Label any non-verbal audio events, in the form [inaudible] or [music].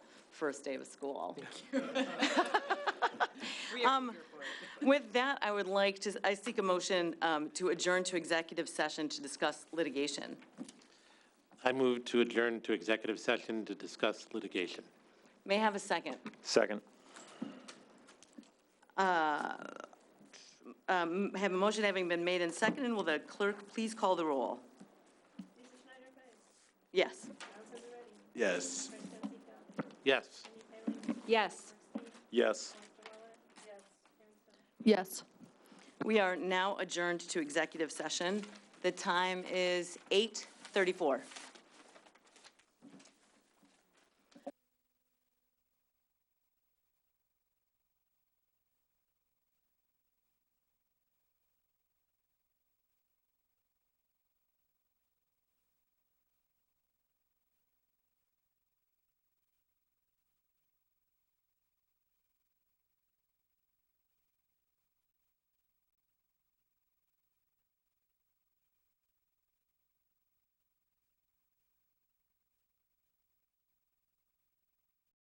first day of school. [laughs] Um, We are here for it. With that, I would like to, I seek a motion um, to adjourn to executive session to discuss litigation. I move to adjourn to executive session to discuss litigation. May I have a second? Second. Uh, Um, Have a motion having been made and seconded, will the clerk please call the roll? Mrs. Schneider Bennett, Yes. Allison Moretti, Yes. Francesca, Yes. Yes. Yes. Mr. Waller, yes, Karen Stone. Yes. We are now adjourned to executive session. The time is 8:34.